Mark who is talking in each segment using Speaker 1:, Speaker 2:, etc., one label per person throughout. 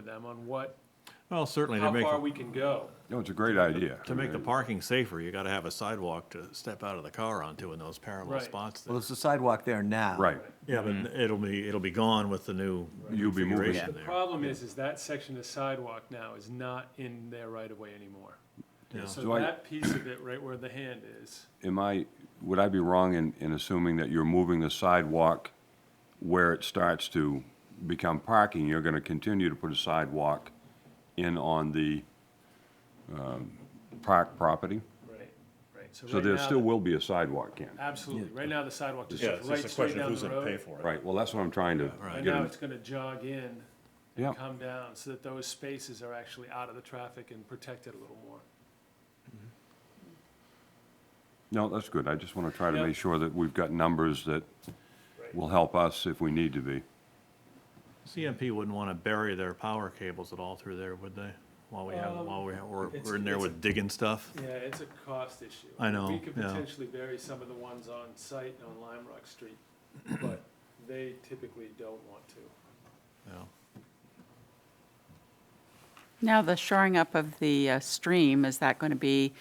Speaker 1: them on what,
Speaker 2: Well, certainly to
Speaker 1: how
Speaker 2: make,
Speaker 1: far we can go.
Speaker 3: No, it's a great idea.
Speaker 2: to make the parking safer, you gotta have a sidewalk to step out of the car onto in those parallel
Speaker 1: Right.
Speaker 2: spots.
Speaker 4: Well, there's a sidewalk there now.
Speaker 3: Right.
Speaker 2: Yeah, but it'll be, it'll be gone with the new
Speaker 3: You'll be moving.
Speaker 2: configuration
Speaker 1: The
Speaker 2: there.
Speaker 1: problem is, is that section of sidewalk now is not in their right of way anymore. So
Speaker 3: Do I-
Speaker 1: that piece of it, right where the hand is,
Speaker 3: Am I, would I be wrong in, in assuming that you're moving the sidewalk where it starts to become parking? You're gonna continue to put a sidewalk in on the, um, park property?
Speaker 1: right, right.
Speaker 3: So
Speaker 1: right
Speaker 3: there
Speaker 1: now,
Speaker 3: still will be a sidewalk, Ken?
Speaker 1: Absolutely. Right now, the sidewalk just
Speaker 2: Yeah,
Speaker 1: goes
Speaker 2: it's
Speaker 1: right
Speaker 2: just a
Speaker 1: straight
Speaker 2: question of
Speaker 1: down
Speaker 2: who's
Speaker 1: the
Speaker 2: gonna pay
Speaker 1: road.
Speaker 2: for it.
Speaker 3: Right, well, that's what I'm trying to
Speaker 1: Right
Speaker 3: get
Speaker 1: now,
Speaker 3: him.
Speaker 1: it's gonna jog in
Speaker 3: Yeah,
Speaker 1: and come down so that those spaces are actually out of the traffic and protected a little more.
Speaker 3: no, that's good. I just wanna try to
Speaker 1: Yeah.
Speaker 3: make sure that we've got numbers that will help us if we need to be.
Speaker 2: CMP wouldn't wanna bury their power cables at all through there, would they? While we have, while we, we're,
Speaker 1: Um, it's-
Speaker 2: we're in there
Speaker 1: it's a-
Speaker 2: with digging stuff?
Speaker 1: Yeah, it's a cost issue.
Speaker 2: I know,
Speaker 1: We could
Speaker 2: yeah.
Speaker 1: potentially bury some of the ones on site and on Lime Rock Street, but they typically don't want to.
Speaker 2: Yeah.
Speaker 5: Now, the shoring up of the uh, stream, is that going to be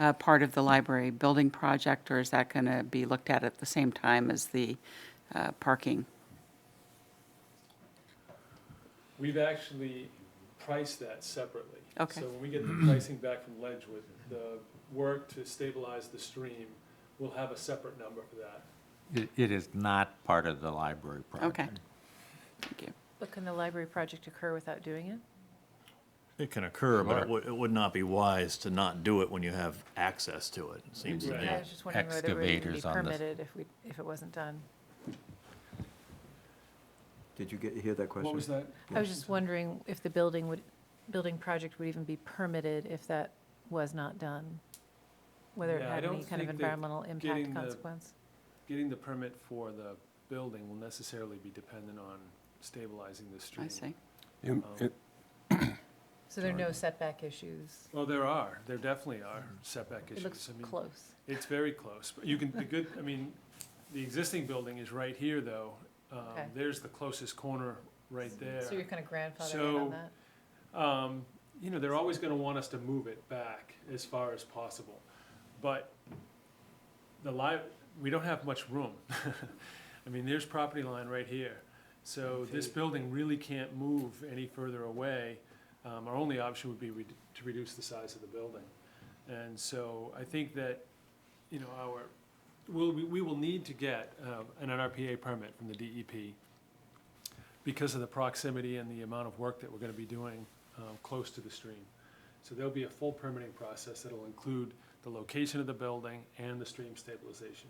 Speaker 5: uh, part of the library building project, or is that going to be looked at at the same time as the uh, parking?
Speaker 1: We've actually priced that separately.
Speaker 5: Okay.
Speaker 1: So when we get the pricing back from Ledgewood, the work to stabilize the stream, we'll have a separate number for that.
Speaker 6: It, it is not part of the library project.
Speaker 5: Okay. Thank you.
Speaker 7: But can the library project occur without doing it?
Speaker 2: It can occur, but
Speaker 6: Sure.
Speaker 2: it would, it would not be wise to not do it when you have access to it, it seems to
Speaker 1: Right.
Speaker 2: me.
Speaker 7: I was just wondering whether it would even be
Speaker 6: Excavators on this-
Speaker 7: permitted if we, if it wasn't done.
Speaker 4: Did you get, hear that question?
Speaker 1: What was that?
Speaker 7: I was just wondering if the building would, building project would even be permitted if that was not done? Whether it
Speaker 1: Yeah, I
Speaker 7: had any
Speaker 1: don't
Speaker 7: kind of
Speaker 1: think that
Speaker 7: environmental
Speaker 1: getting
Speaker 7: impact
Speaker 1: the-
Speaker 7: consequence?
Speaker 1: Getting the permit for the building will necessarily be dependent on stabilizing the stream.
Speaker 5: I see.
Speaker 3: Am- am-
Speaker 7: So there are no setback issues?
Speaker 1: Well, there are, there definitely are setback issues.
Speaker 7: It looks
Speaker 1: I mean,
Speaker 7: close.
Speaker 1: It's very close, but you can, the good, I mean, the existing building is right here, though. Um,
Speaker 7: Okay.
Speaker 1: There's the closest corner right there.
Speaker 7: So you're kind of grandfathered in
Speaker 1: So-
Speaker 7: on that?
Speaker 1: Um, you know, they're always gonna want us to move it back as far as possible, but the li- we don't have much room. I mean, there's property line right here, so this building really can't move any further away. Um, our only option would be re- to reduce the size of the building. And so I think that, you know, our, we'll, we- we will need to get, uh, an NRPA permit from the DEP because of the proximity and the amount of work that we're gonna be doing, um, close to the stream. So there'll be a full permitting process that'll include the location of the building and the stream stabilization.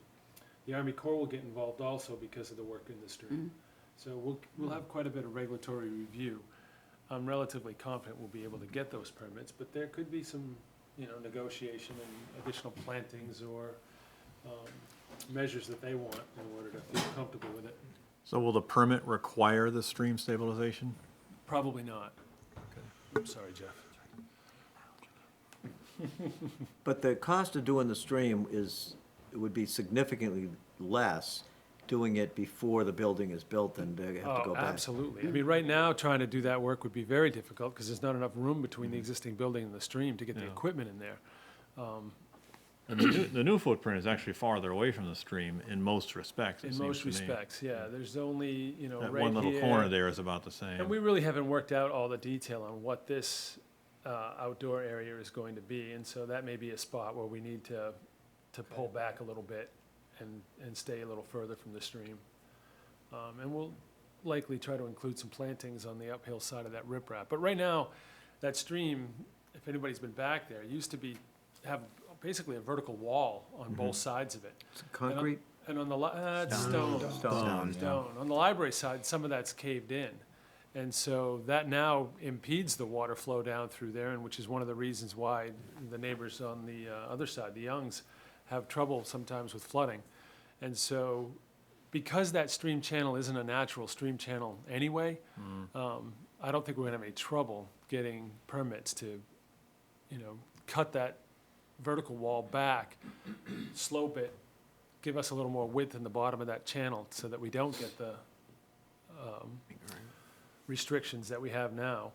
Speaker 1: The Army Corps will get involved also because of the work in the stream. So we'll, we'll have quite a bit of regulatory review. I'm relatively confident we'll be able to get those permits, but there could be some, you know, negotiation and additional plantings or, um, measures that they want in order to feel comfortable with it.
Speaker 2: So will the permit require the stream stabilization?
Speaker 1: Probably not. I'm sorry, Jeff.
Speaker 4: But the cost of doing the stream is, it would be significantly less doing it before the building is built than to have to go
Speaker 1: Oh,
Speaker 4: back.
Speaker 1: absolutely. I mean, right now, trying to do that work would be very difficult because there's not enough room between the existing building and the stream to get the
Speaker 2: Mm. Yeah.
Speaker 1: equipment in there.
Speaker 2: And the new, the new footprint is actually farther away from the stream in most respects, it
Speaker 1: In
Speaker 2: seems
Speaker 1: most
Speaker 2: to me.
Speaker 1: respects, yeah. There's only, you know,
Speaker 2: That
Speaker 1: right
Speaker 2: one little
Speaker 1: here-
Speaker 2: corner there is about the
Speaker 1: And we
Speaker 2: same.
Speaker 1: really haven't worked out all the detail on what this uh, outdoor area is going to be. And so that may be a spot where we need to, to pull back a little bit and, and stay a little further from the stream. Um, And we'll likely try to include some plantings on the uphill side of that riprap. But right now, that stream, if anybody's been back there, used to be, have basically a vertical wall on both sides of it.
Speaker 4: It's Concrete?
Speaker 1: And on the, li- uh, it's
Speaker 4: Stone.
Speaker 1: stone.
Speaker 4: Stone,
Speaker 1: Stone. On the library side, some of that's caved in. And so that now impedes the water flow down through there, and which is one of the reasons why the neighbors on the uh, other side, the Youngs, have trouble sometimes with flooding. And so, because that stream channel isn't a natural stream channel anyway,
Speaker 4: Mm.
Speaker 1: um, I don't think we're gonna have any trouble getting permits to, you know, cut that vertical wall back, slope it, give us a little more width in the bottom of that channel so that we don't get the um, restrictions that we have now.